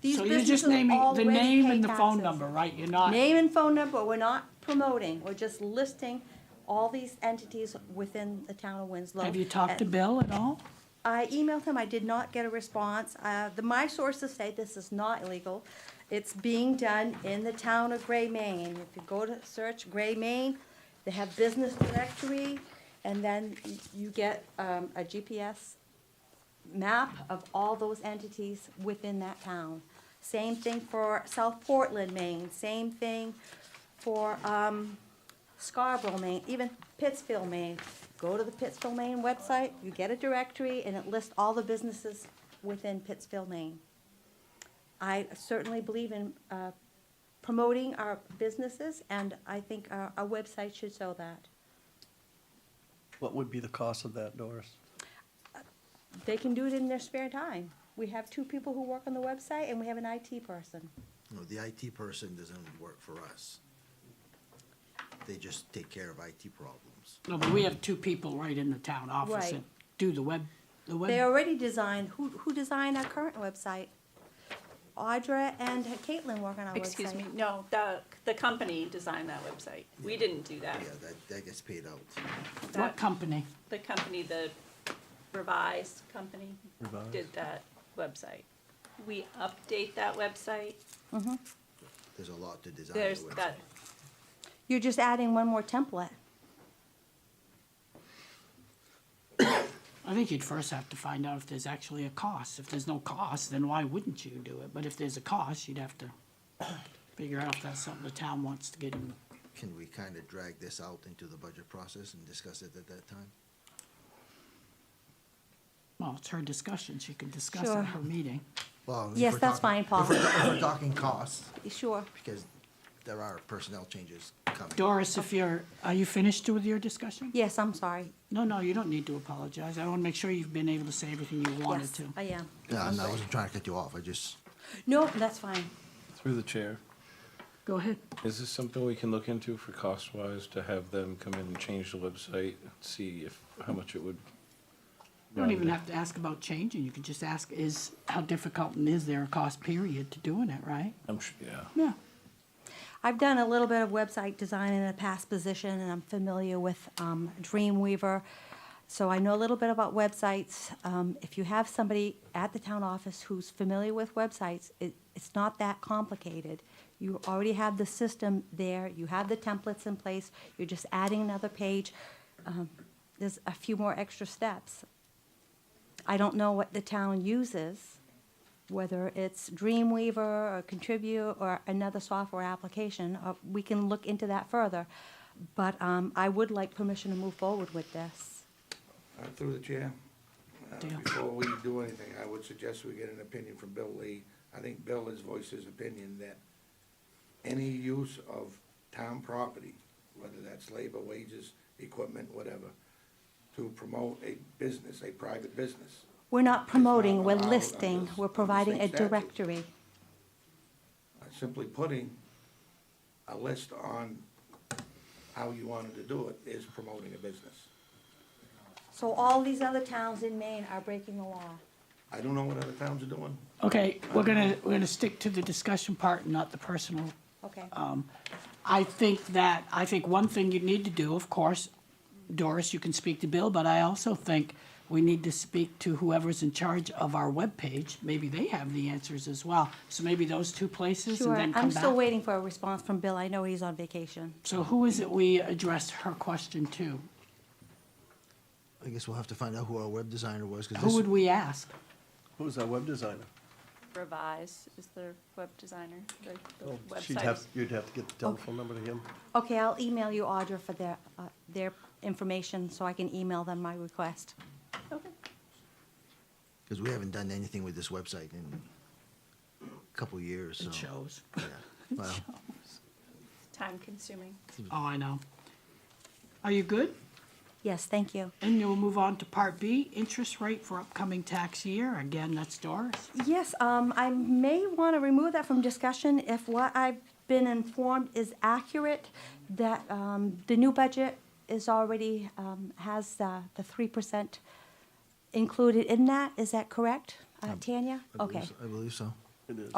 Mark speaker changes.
Speaker 1: These
Speaker 2: So you're just
Speaker 1: businesses
Speaker 2: naming the
Speaker 1: already
Speaker 2: name
Speaker 1: pay
Speaker 2: and the phone
Speaker 1: taxes.
Speaker 2: number, right? You're not,
Speaker 1: Name and phone number, we're not promoting, we're just listing all these entities within the town of Winslow.
Speaker 2: have you talked to
Speaker 1: And
Speaker 2: Bill at all?
Speaker 1: I emailed him, I did not get a response. Uh, the, my sources say this is not illegal. It's being done in the town of Gray, Maine. If you go to search Gray, Maine, they have business directory, and then y- you get, um, a GPS map of all those entities within that town. Same thing for South Portland, Maine, same thing for um, Scarborough, Maine, even Pittsfield, Maine. Go to the Pittsfield, Maine website, you get a directory, and it lists all the businesses within Pittsfield, Maine. I certainly believe in uh, promoting our businesses, and I think our our website should show that.
Speaker 3: What would be the cost of that, Doris?
Speaker 1: They can do it in their spare time. We have two people who work on the website, and we have an IT person.
Speaker 4: No, the IT person doesn't work for us. They just take care of IT problems.
Speaker 2: No, but we have two people right in the town office
Speaker 1: Right.
Speaker 2: that do the web, the
Speaker 1: They
Speaker 2: web.
Speaker 1: already designed, who, who designed our current website? Audra and Caitlin work on our website.
Speaker 5: Excuse me, no, the, the company designed that website. We didn't do that.
Speaker 4: Yeah, that, that gets paid out.
Speaker 2: What
Speaker 5: That-
Speaker 2: company?
Speaker 5: The company, the revised company,
Speaker 3: Revised.
Speaker 5: did that website. We update that website.
Speaker 4: There's a lot to design. a
Speaker 5: There's
Speaker 4: website.
Speaker 5: that,
Speaker 1: You're just adding one more template.
Speaker 2: I think you'd first have to find out if there's actually a cost. If there's no cost, then why wouldn't you do it? But if there's a cost, you'd have to figure out if that's something the town wants to get in.
Speaker 4: Can we kind of drag this out into the budget process and discuss it at that time?
Speaker 2: Well, it's her discussion. She can discuss
Speaker 1: Sure.
Speaker 2: at her meeting.
Speaker 4: Well, if
Speaker 1: Yes,
Speaker 4: we're
Speaker 1: that's fine,
Speaker 4: talking-
Speaker 1: Paul.
Speaker 4: If we're, if we're talking costs,
Speaker 1: Sure.
Speaker 4: because there are personnel changes coming.
Speaker 2: Doris, if you're, are you finished with your discussion?
Speaker 1: Yes, I'm sorry.
Speaker 2: No, no, you don't need to apologize. I want to make sure you've been able to say everything you wanted
Speaker 1: Yes,
Speaker 2: to.
Speaker 1: I am.
Speaker 4: Yeah, no, I wasn't trying to cut you off, I just,
Speaker 1: No, that's fine.
Speaker 6: Through the chair,
Speaker 2: Go ahead.
Speaker 6: is this something we can look into for cost-wise to have them come in and change the website, see if, how much it would?
Speaker 2: You don't even have to ask about changing. You can just ask is, how difficult and is there a cost period to doing it, right?
Speaker 6: I'm su- yeah.
Speaker 2: Yeah.
Speaker 1: I've done a little bit of website design in a past position, and I'm familiar with um, Dreamweaver. So I know a little bit about websites. Um, If you have somebody at the town office who's familiar with websites, it, it's not that complicated. You already have the system there, you have the templates in place, you're just adding another page. Um, There's a few more extra steps. I don't know what the town uses whether it's Dreamweaver or Contribute or another software application, uh, we can look into that further. But um, I would like permission to move forward with this.
Speaker 7: Uh, Through the chair, uh,
Speaker 2: Dale.
Speaker 7: before we do anything, I would suggest we get an opinion from Bill Lee. I think Bill has voiced his opinion that any use of town property, whether that's labor, wages, equipment, whatever, to promote a business, a private business.
Speaker 1: We're not promoting, we're
Speaker 7: allowed on
Speaker 1: listing,
Speaker 7: this-
Speaker 1: we're
Speaker 7: on the
Speaker 1: providing a
Speaker 7: state statute.
Speaker 1: directory.
Speaker 7: uh, Simply putting a list on how you wanted to do it is promoting a business.
Speaker 1: So all these other towns in Maine are breaking the law.
Speaker 7: I don't know what other towns are doing.
Speaker 2: Okay, we're gonna, we're gonna stick to the discussion part, not the personal. um,
Speaker 1: Okay.
Speaker 2: Uh, I think that, I think one thing you need to do, of course, Doris, you can speak to Bill, but I also think we need to speak to whoever's in charge of our webpage. Maybe they have the answers as well. So maybe those two places and
Speaker 1: Sure,
Speaker 2: then
Speaker 1: I'm
Speaker 2: come
Speaker 1: still
Speaker 2: back.
Speaker 1: waiting for a response from Bill. I know he's on vacation.
Speaker 2: So who is it we address her question to?
Speaker 4: I guess we'll have to find out who our web designer was, because
Speaker 2: Who
Speaker 4: this,
Speaker 2: would we ask?
Speaker 3: Who's our web designer?
Speaker 5: Revise is their web designer, the, the
Speaker 3: She'd have,
Speaker 5: website.
Speaker 3: you'd have to get the telephone number to him.
Speaker 1: Okay, I'll email you, Audra, for their, uh, their information, so I can email them my request.
Speaker 5: Okay.
Speaker 4: because we haven't done anything with this website in a couple years, so.
Speaker 2: It shows.
Speaker 4: Yeah, well,
Speaker 5: Time consuming.
Speaker 2: Oh, I know. Are you good?
Speaker 1: Yes, thank you.
Speaker 2: And you'll move on to part B, interest rate for upcoming tax year. Again, that's Doris.
Speaker 1: Yes, um, I may want to remove that from discussion if what I've been informed is accurate, that, um, the new budget is already, um, has, uh, the three percent included in that. Is that correct, uh, Tanya?
Speaker 4: Um, I believe
Speaker 1: Okay.
Speaker 4: so- I believe so.
Speaker 3: It is.